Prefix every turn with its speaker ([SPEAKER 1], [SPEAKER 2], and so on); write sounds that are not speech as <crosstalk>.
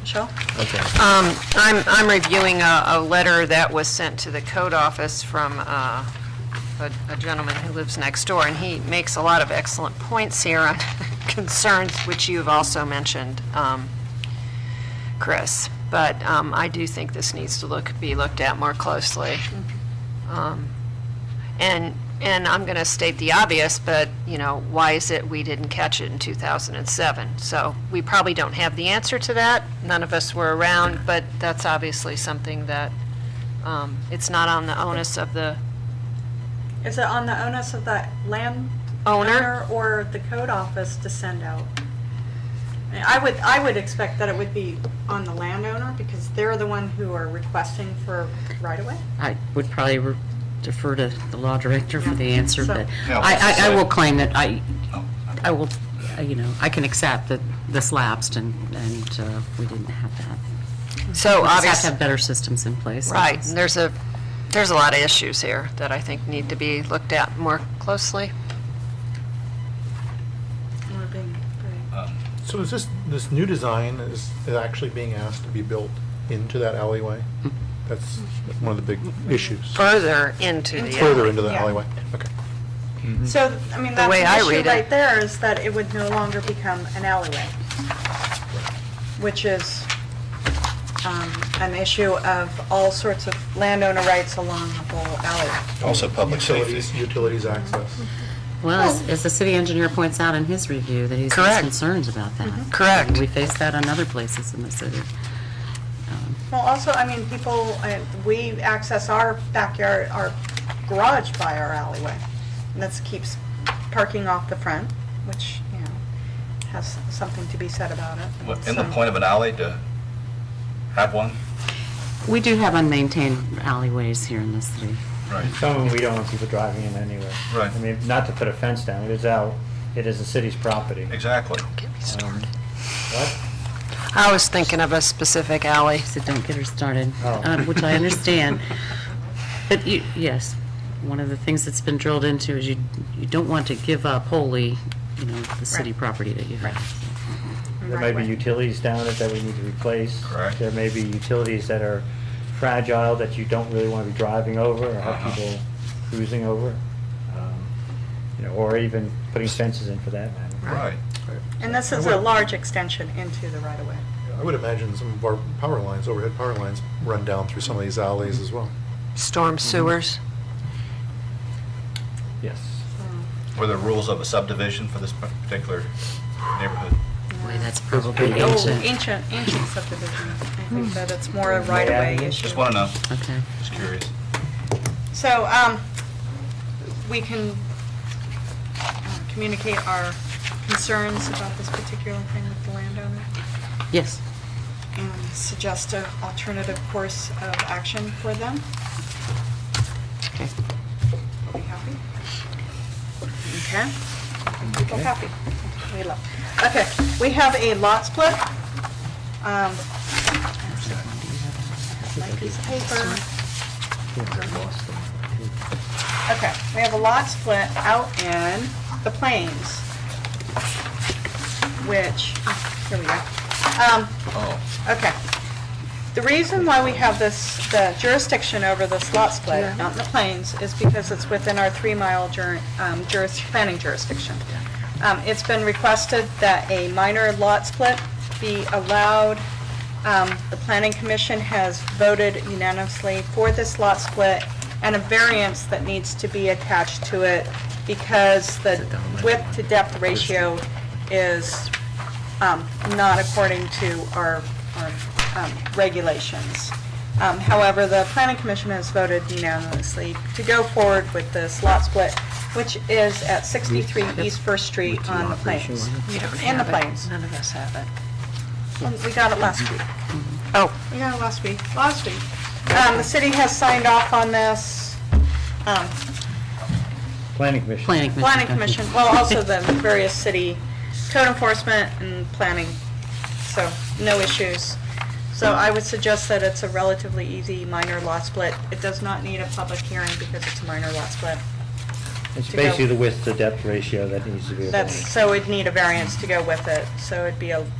[SPEAKER 1] Michelle?
[SPEAKER 2] Okay.
[SPEAKER 3] I'm, I'm reviewing a, a letter that was sent to the code office from uh, a a gentleman who lives next door, and he makes a lot of excellent points here on <laughs> concerns which you've also mentioned, um, Chris. But um, I do think this needs to look, be looked at more closely. Um, And, and I'm going to state the obvious, but, you know, why is it we didn't catch it in 2007? So we probably don't have the answer to that. None of us were around, but that's obviously something that, um, it's not on the onus of the
[SPEAKER 1] Is it on the onus of the land?
[SPEAKER 3] Owner?
[SPEAKER 1] Or the code office to send out? I mean, I would, I would expect that it would be on the landowner because they're the one who are requesting for right away.
[SPEAKER 4] I would probably re- defer to the law director for the answer, but
[SPEAKER 5] Yeah.
[SPEAKER 4] I, I, I will
[SPEAKER 5] Yeah.
[SPEAKER 4] claim that I,
[SPEAKER 5] Oh,
[SPEAKER 4] I will, uh, you know, I can accept that this lapsed and, and uh, we didn't have that.
[SPEAKER 3] So
[SPEAKER 4] Mm-hmm. We just have to
[SPEAKER 3] obviously,
[SPEAKER 4] have better systems in place. I
[SPEAKER 3] right,
[SPEAKER 4] guess.
[SPEAKER 3] and there's a, there's a lot of issues here that I think need to be looked at more closely.
[SPEAKER 1] Or being- right.
[SPEAKER 2] So is this, this new design is is actually being asked to be built into that alleyway?
[SPEAKER 1] Mm-hmm.
[SPEAKER 2] That's one of the big issues,
[SPEAKER 3] Further into the.
[SPEAKER 2] further into the
[SPEAKER 1] Yeah.
[SPEAKER 2] alleyway. Okay.
[SPEAKER 1] So, I mean, that's
[SPEAKER 3] way I
[SPEAKER 1] the
[SPEAKER 3] read
[SPEAKER 1] issue
[SPEAKER 3] it.
[SPEAKER 1] right there is that it would no longer become an alleyway, which is um, an issue of all sorts of landowner rights along the whole alley.
[SPEAKER 5] Also public safety.
[SPEAKER 2] Utilities, utilities access.
[SPEAKER 1] Mm-hmm.
[SPEAKER 4] Well, as, as the city engineer points out in his review, that he's
[SPEAKER 3] Correct. Mm-hmm.
[SPEAKER 4] has concerns about that.
[SPEAKER 3] Correct.
[SPEAKER 4] And We face that in other places in the city.
[SPEAKER 1] Well, also, I mean, people, uh, we access our backyard, our garage by our alleyway. And that keeps parking off the front, which, you know, has something to be said about it.
[SPEAKER 5] In the
[SPEAKER 1] So-
[SPEAKER 5] point of an alley to have one?
[SPEAKER 4] We do have unmaintained alleyways here in the city.
[SPEAKER 5] Right.
[SPEAKER 6] Some of them we don't want people driving in anyway.
[SPEAKER 5] Right.
[SPEAKER 6] I mean, not to put a fence down, it is out, it is the city's property.
[SPEAKER 5] Exactly.
[SPEAKER 6] Um, What?
[SPEAKER 3] I was thinking of a specific alley.
[SPEAKER 4] So don't get her started,
[SPEAKER 6] Oh.
[SPEAKER 4] um, which I understand. But you, yes, one of the things that's been drilled into is you, you don't want to give up wholly, you know, the city
[SPEAKER 1] Right.
[SPEAKER 4] property that you have.
[SPEAKER 6] There may be
[SPEAKER 1] Right.
[SPEAKER 6] utilities down it that we need to replace.
[SPEAKER 5] Correct.
[SPEAKER 6] There may be utilities that are fragile that you don't really want to be driving over or
[SPEAKER 5] Uh-huh.
[SPEAKER 6] have people cruising over. um, You know, or even putting fences in for that matter.
[SPEAKER 5] Right.
[SPEAKER 1] And this is a large extension into the right-of-way.
[SPEAKER 2] I would imagine some of our power lines, overhead power lines, run down through some of these alleys as well.
[SPEAKER 3] Storm sewers.
[SPEAKER 6] Yes.
[SPEAKER 5] Were the rules of a subdivision for this particular neighborhood?
[SPEAKER 4] Boy, that's probably
[SPEAKER 1] The old
[SPEAKER 4] ancient.
[SPEAKER 1] ancient, ancient Oh, subdivision. I
[SPEAKER 6] Hmm.
[SPEAKER 1] think that it's more a right-of-way
[SPEAKER 6] Yeah.
[SPEAKER 1] issue.
[SPEAKER 5] Just want to know,
[SPEAKER 4] Okay.
[SPEAKER 5] just curious.
[SPEAKER 1] So, um, we can uh, communicate our concerns about this particular thing with the landowner
[SPEAKER 4] Yes,
[SPEAKER 1] and um, suggest an alternative course of action for them.
[SPEAKER 4] okay.
[SPEAKER 1] Are we happy? Okay. People happy. We love. Okay, we have a lot split. Um, my piece of paper. Okay, we have a lot split out in the plains, which, ah, here we go. Um,
[SPEAKER 5] Oh,
[SPEAKER 1] Okay. The reason why we have this, the jurisdiction over this lot split, not in the plains, is because it's within our three-mile jur- um, juris, planning jurisdiction. Um, It's been requested that a minor lot split be allowed. Um, The planning commission has voted unanimously for this lot split and a variance that needs to be attached to it because the width to depth ratio is um, not according to our, our um, regulations. Um, However, the planning commission has voted unanimously to go forward with this lot split, which is at 63 East First Street on the plains. In the plains.
[SPEAKER 3] None of us have it.
[SPEAKER 1] And We got it last week.
[SPEAKER 3] Oh,
[SPEAKER 1] We got it last week, last week. Um, The city has signed off on this. Um,
[SPEAKER 6] Planning commission.
[SPEAKER 4] Planning commission.
[SPEAKER 1] Planning
[SPEAKER 4] okay.
[SPEAKER 1] commission, well, also the various city code enforcement and planning, so no issues. So I would suggest that it's a relatively easy minor lot split. It does not need a public hearing because it's a minor lot split.
[SPEAKER 6] It's
[SPEAKER 1] to go.
[SPEAKER 6] basically the width to depth ratio that needs to be.
[SPEAKER 1] That's,
[SPEAKER 6] avoided.
[SPEAKER 1] so it'd need a variance to go with it, so it'd be a